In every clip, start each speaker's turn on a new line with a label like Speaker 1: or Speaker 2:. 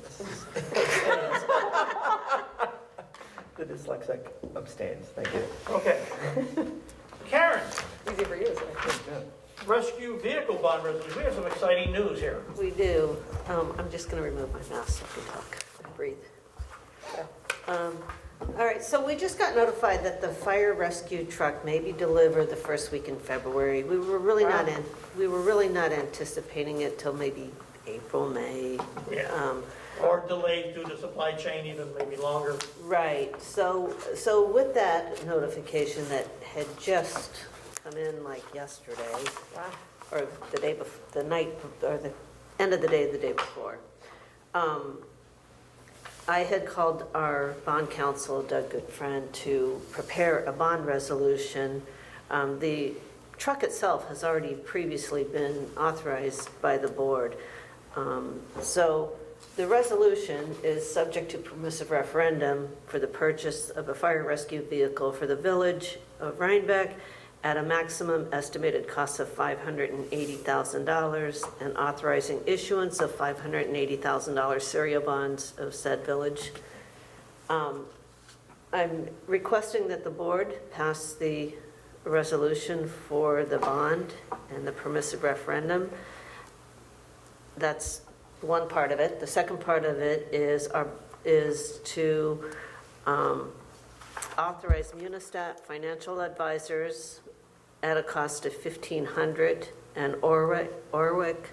Speaker 1: dyslexic abstains, thank you.
Speaker 2: Okay. Karen,
Speaker 3: Easy for you, isn't it?
Speaker 2: rescue vehicle bond resolution. We have some exciting news here.
Speaker 4: We do. Um, I'm just going to remove my mask so I can talk and breathe. Um, All right, so we just got notified that the fire rescue truck may be delivered the first week in February. We were really not in, we were really not anticipating it till maybe April, May.
Speaker 2: Yeah.
Speaker 4: Um,
Speaker 2: Or delayed due to supply chain even maybe longer.
Speaker 4: Right, so, so with that notification that had just come in like yesterday, or the day bef, the night, or the end of the day, the day before, um, I had called our bond counsel, Doug Goodfriend, to prepare a bond resolution. Um, The truck itself has already previously been authorized by the board. Um, So the resolution is subject to permissive referendum for the purchase of a fire rescue vehicle for the village of Rhinebeck at a maximum estimated cost of $580,000 and authorizing issuance of $580,000 serial bonds of said village. Um, I'm requesting that the board pass the resolution for the bond and the permissive referendum. That's one part of it. The second part of it is, our- is to um, authorize Munistat Financial Advisors at a cost of 1500 and Orwick, Orwick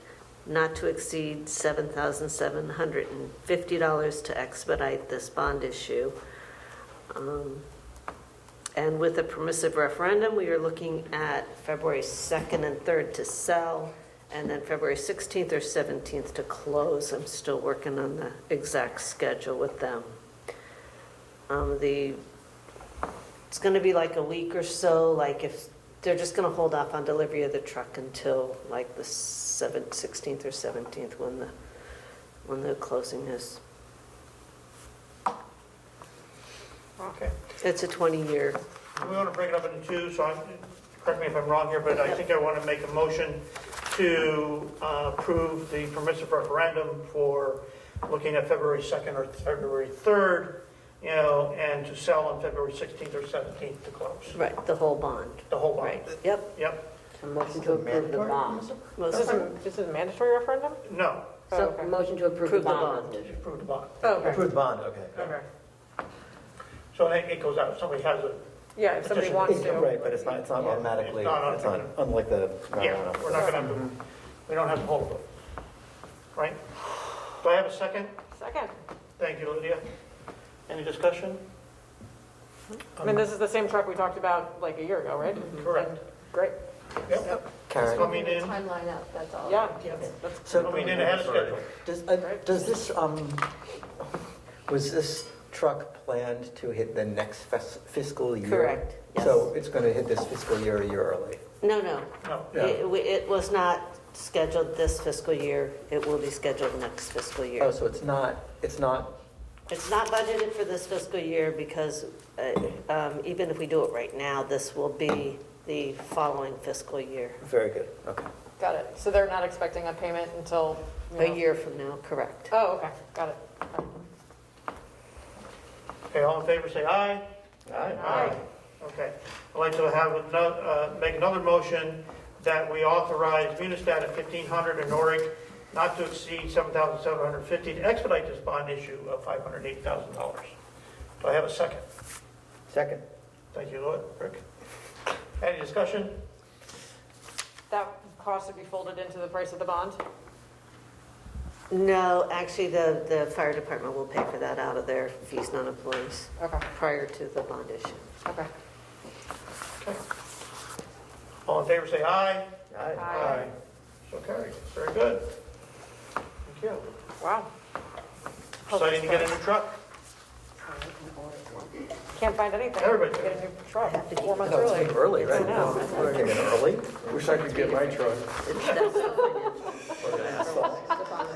Speaker 4: not to exceed $7,750 to expedite this bond issue. Um, And with a permissive referendum, we are looking at February 2nd and 3rd to sell, and then February 16th or 17th to close. I'm still working on the exact schedule with them. Um, The, it's going to be like a week or so, like if, they're just going to hold off on delivery of the truck until like the 7th, 16th or 17th when the, when the closing is.
Speaker 2: Okay.
Speaker 4: It's a 20-year,
Speaker 2: We want to break it up into two, so I'm, correct me if I'm wrong here, but I think I want to make a motion to uh, approve the permissive referendum for looking at February 2nd or February 3rd, you know, and to sell on February 16th or 17th to close,
Speaker 4: right, the whole bond.
Speaker 2: the whole bond.
Speaker 4: Right, yep.
Speaker 2: Yep,
Speaker 3: A motion to approve the bond.
Speaker 4: Most
Speaker 3: This is,
Speaker 4: of
Speaker 3: a- this is a mandatory referendum?
Speaker 2: no,
Speaker 3: Oh,
Speaker 4: So,
Speaker 3: okay. motion to approve
Speaker 4: the bond.
Speaker 2: approve the bond.
Speaker 3: Oh, Okay,
Speaker 1: Approved bond, okay.
Speaker 3: okay.
Speaker 2: So it it goes out, if somebody has it,
Speaker 3: Yeah, if somebody
Speaker 2: Petition.
Speaker 3: wants to.
Speaker 1: Right, but it's not, it's not
Speaker 3: Yeah.
Speaker 1: automatically,
Speaker 2: It's not
Speaker 1: it's not,
Speaker 2: automatic.
Speaker 1: unlike the, no,
Speaker 2: yeah,
Speaker 1: no, no.
Speaker 2: we're not going to, we don't have to hold it, right? Do I have a second?
Speaker 3: Second.
Speaker 2: Thank you, Lydia. Any discussion?
Speaker 3: I mean, this is the same truck we talked about like a year ago, right?
Speaker 2: Um, Correct.
Speaker 3: Great,
Speaker 2: Yep.
Speaker 5: Karen,
Speaker 2: Coming in,
Speaker 5: Timeline up, that's all.
Speaker 3: Um, yeah.
Speaker 5: Okay.
Speaker 3: That's-
Speaker 2: coming in ahead of schedule.
Speaker 5: Does, uh,
Speaker 1: Does this, um, was this truck planned to hit the next fes- fiscal year?
Speaker 4: Correct, yes.
Speaker 1: So it's going to hit this fiscal year a year early?
Speaker 4: No, no.
Speaker 2: No.
Speaker 4: It, it was not scheduled this fiscal year. It will be scheduled next fiscal
Speaker 1: Oh,
Speaker 4: year.
Speaker 1: so it's not, it's not,
Speaker 4: It's not budgeted for this fiscal year because uh, um, even if we do it right now, this will be the following fiscal year.
Speaker 1: very good, okay.
Speaker 3: Got it. So they're not expecting a payment until, you know-
Speaker 4: A year from now, correct.
Speaker 3: Oh, okay, got it.
Speaker 2: Okay, all in favor, say aye.
Speaker 3: Aye.
Speaker 2: Okay. I'd like to have, ano- uh, make another motion that we authorize Munistat at 1500 in Norick not to exceed 7750 to expedite this bond issue of $508,000. Do I have a second?
Speaker 1: Second.
Speaker 2: Thank you, Lloyd. Rick? Any discussion?
Speaker 3: That cost would be folded into the price of the bond?
Speaker 4: No, actually, the, the fire department will pay for that out of their fees non-employees
Speaker 3: Okay,
Speaker 4: prior to the bond issue.
Speaker 3: okay.
Speaker 2: Okay. All in favor, say aye.
Speaker 3: Aye.
Speaker 2: So carried. Very good. Thank you.
Speaker 3: Wow.
Speaker 2: Exciting to get a new truck.
Speaker 3: Can't find anything.
Speaker 2: Everybody.
Speaker 3: Get a new truck,
Speaker 4: Have to keep
Speaker 3: four months
Speaker 1: No, it's
Speaker 3: early.
Speaker 1: been early, right?
Speaker 3: I know.
Speaker 1: It Came in early?
Speaker 6: Wish I could get my truck.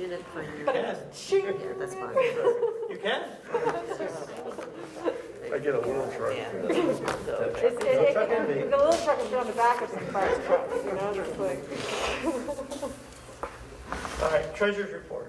Speaker 4: Unit finance.
Speaker 2: Yes.
Speaker 4: Yeah, that's fine.
Speaker 2: You can?
Speaker 6: I get a little truck.
Speaker 4: Yeah. So-
Speaker 3: It's, it, it, the little truck is on the back of some fire trucks, you know, just like.
Speaker 2: All right, treasurer's report.